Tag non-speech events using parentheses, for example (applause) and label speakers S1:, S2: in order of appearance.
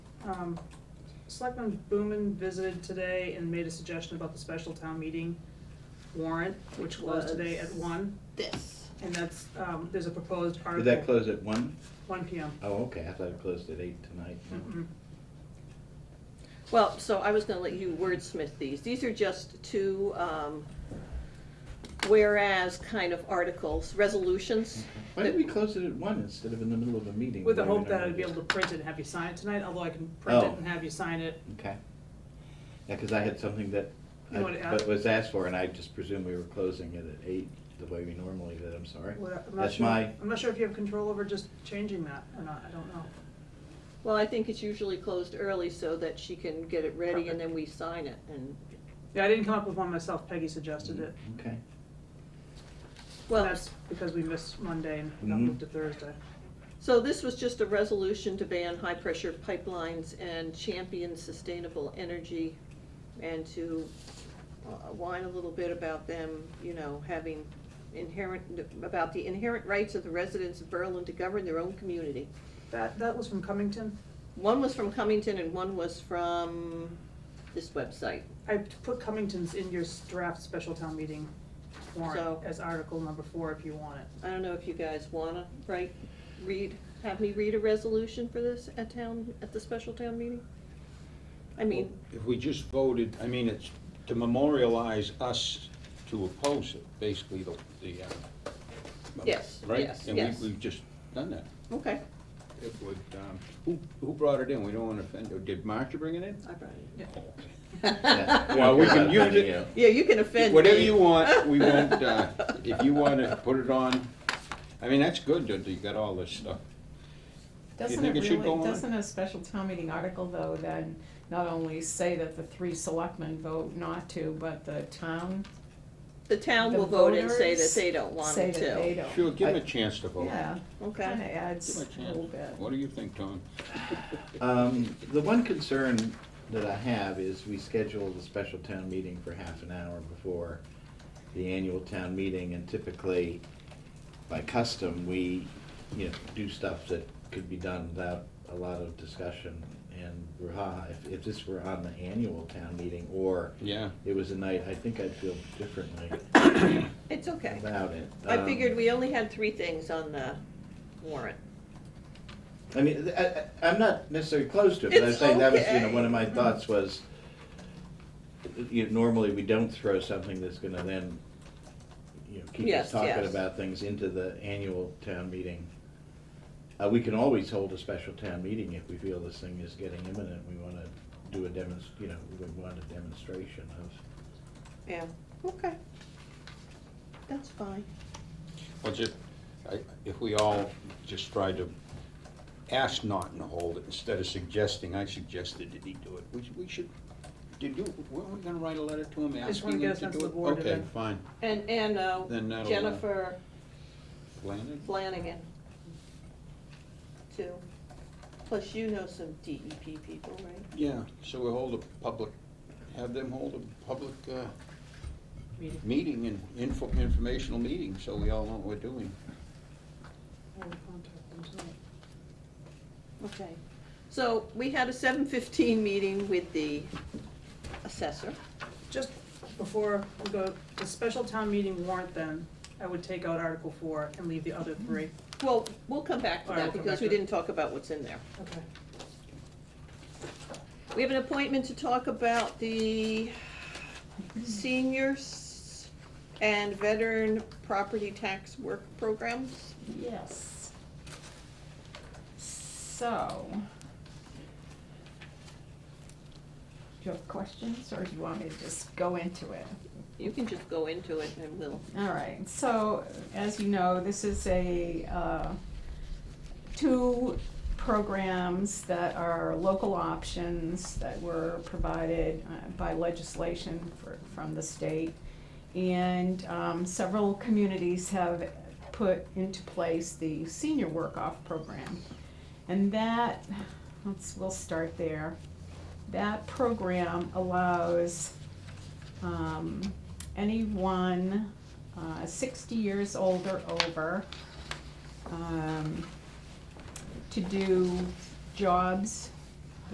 S1: Um, Selectman Boomen visited today and made a suggestion about the special town meeting warrant, which closed today at
S2: Was-
S1: one,
S2: This.
S1: and that's, um, there's a proposed
S3: Did
S1: article.
S3: that close at one?
S1: One P M.
S3: Oh, okay, I thought it closed at eight tonight.
S1: Mm-mm.
S2: Well, so I was gonna let you wordsmith these. These are just two, um, whereas kind of articles, resolutions.
S3: Why did we close it at one instead of in the middle of a meeting?
S1: With the
S3: where we
S1: hope that I'd
S3: normally
S1: be
S3: just-
S1: able to print it and have you sign it tonight, although I can print it
S3: Oh.
S1: and have you sign it.
S3: Okay. Yeah, because I had something that
S1: You
S3: I-
S1: wanna add?
S3: that was asked for, and I just presumed we were closing it at eight, the way we normally did, I'm sorry.
S1: Well, I'm not
S3: That's
S1: sure-
S3: my,
S1: I'm not sure if you have control over just changing that or not, I don't know.
S2: Well, I think it's usually closed early so that she can get it ready and then we sign it and,
S1: Yeah, I didn't come up with one myself, Peggy suggested it.
S3: okay.
S2: well.
S1: That's because we missed Monday and got
S3: Mhm.
S1: moved to Thursday.
S2: So this was just a resolution to ban high-pressure pipelines and champion sustainable energy and to uh, whine a little bit about them, you know, having inherent, about the inherent rights of the residents of Berlin to govern their own community.
S1: That, that was from Cummington.
S2: One was from Cummington and one was from this website.
S1: I put Cummington's in your draft special town meeting warrant
S2: So-
S1: as article number four if you want it.
S2: I don't know if you guys wanna write, read, have me read a resolution for this at town, at the special town meeting? I mean,
S4: If we just voted, I mean, it's to memorialize us to oppose it, basically the, the, uh.
S2: Yes,
S4: right?
S2: yes,
S4: And
S2: yes.
S4: we, we've just done that.
S2: okay,
S4: It would, um, who, who brought it in? We don't wanna offend, did Marcia bring it in?
S2: I brought it.
S3: Yeah.
S4: Well, we
S3: Okay,
S4: can
S3: that's
S4: use
S3: fine,
S4: it,
S2: Yeah, you can offend
S4: whatever
S2: me.
S4: you
S2: (laughs)
S4: want, we won't, uh, if you wanna put it on, I mean, that's good that you got all this stuff. Do you
S5: Doesn't it
S4: think it should go
S5: really,
S4: on?
S5: doesn't a special town meeting article though then not only say that the three selectmen vote not to, but the town
S2: The town
S5: The
S2: will vote and say that
S5: voters
S2: they don't want
S5: say
S2: it
S5: that they
S2: to.
S5: don't?
S4: Sure, give 'em
S3: I-
S4: a chance to vote.
S5: Yeah,
S2: Okay,
S5: kinda adds
S4: Give 'em
S5: a
S4: a
S5: little
S4: chance.
S5: bit.
S4: What do you think, Tom?
S3: Um, The one concern that I have is we schedule the special town meeting for half an hour before the annual town meeting, and typically, by custom, we, you know, do stuff that could be done without a lot of discussion and brouhaha. If- If this were on the annual town meeting, or
S4: Yeah.
S3: it was a night, I think I'd feel differently
S2: it's okay.
S3: about it.
S2: I
S3: Um,
S2: figured we only had three things on the warrant.
S3: I mean, th- I, I, I'm not necessarily close to it, but I'm
S2: It's
S3: saying that was, you know,
S2: okay.
S3: one of my thoughts was, you know, normally we don't throw something that's gonna then, you know, keep
S2: Yes,
S3: us talking
S2: yes.
S3: about things into the annual town meeting. Uh, we can always hold a special town meeting if we feel this thing is getting imminent, we wanna do a demonst, you know, we want a demonstration of,
S2: Yeah, okay. That's fine.
S4: Well, just, I, if we all just tried to ask Norton to hold it instead of suggesting, I suggested that he do it, we, should- we should, did you, weren't we gonna write a letter to him
S1: I just wanna
S4: asking
S1: get
S4: him
S1: a
S4: to
S1: sense
S4: do
S1: of
S4: it?
S1: the board and
S4: Okay,
S1: then-
S4: fine.
S2: And, and uh,
S4: Then that'll, uh,
S2: Jennifer
S4: Landon?
S2: Flanagan, too. Plus, you know some DEP people, right?
S4: Yeah, so we hold a public, have them hold a public, uh,
S1: Meeting.
S4: meeting and info, informational meeting, so we all know what we're doing.
S1: I will contact them tonight.
S2: Okay. So we had a seven fifteen meeting with the assessor.
S1: Just before we go, the special town meeting warrant then, I would take out article four and leave the other three.
S2: Well, we'll come back to
S1: All right,
S2: that
S1: we'll come
S2: because
S1: back
S2: we
S1: to it.
S2: didn't talk about what's in there.
S1: Okay.
S2: We have an appointment to talk about the seniors and veteran property tax work programs.
S5: Yes. So. Do you have questions or do you want me to just go into it?
S2: You can just go into it and we'll,
S5: All right, so as you know, this is a, uh, two programs that are local options that were provided uh, by legislation for, from the state. And um, several communities have put into place the senior work-off program. And that, let's, we'll start there. That program allows um, anyone uh, 60 years old or over um, to do jobs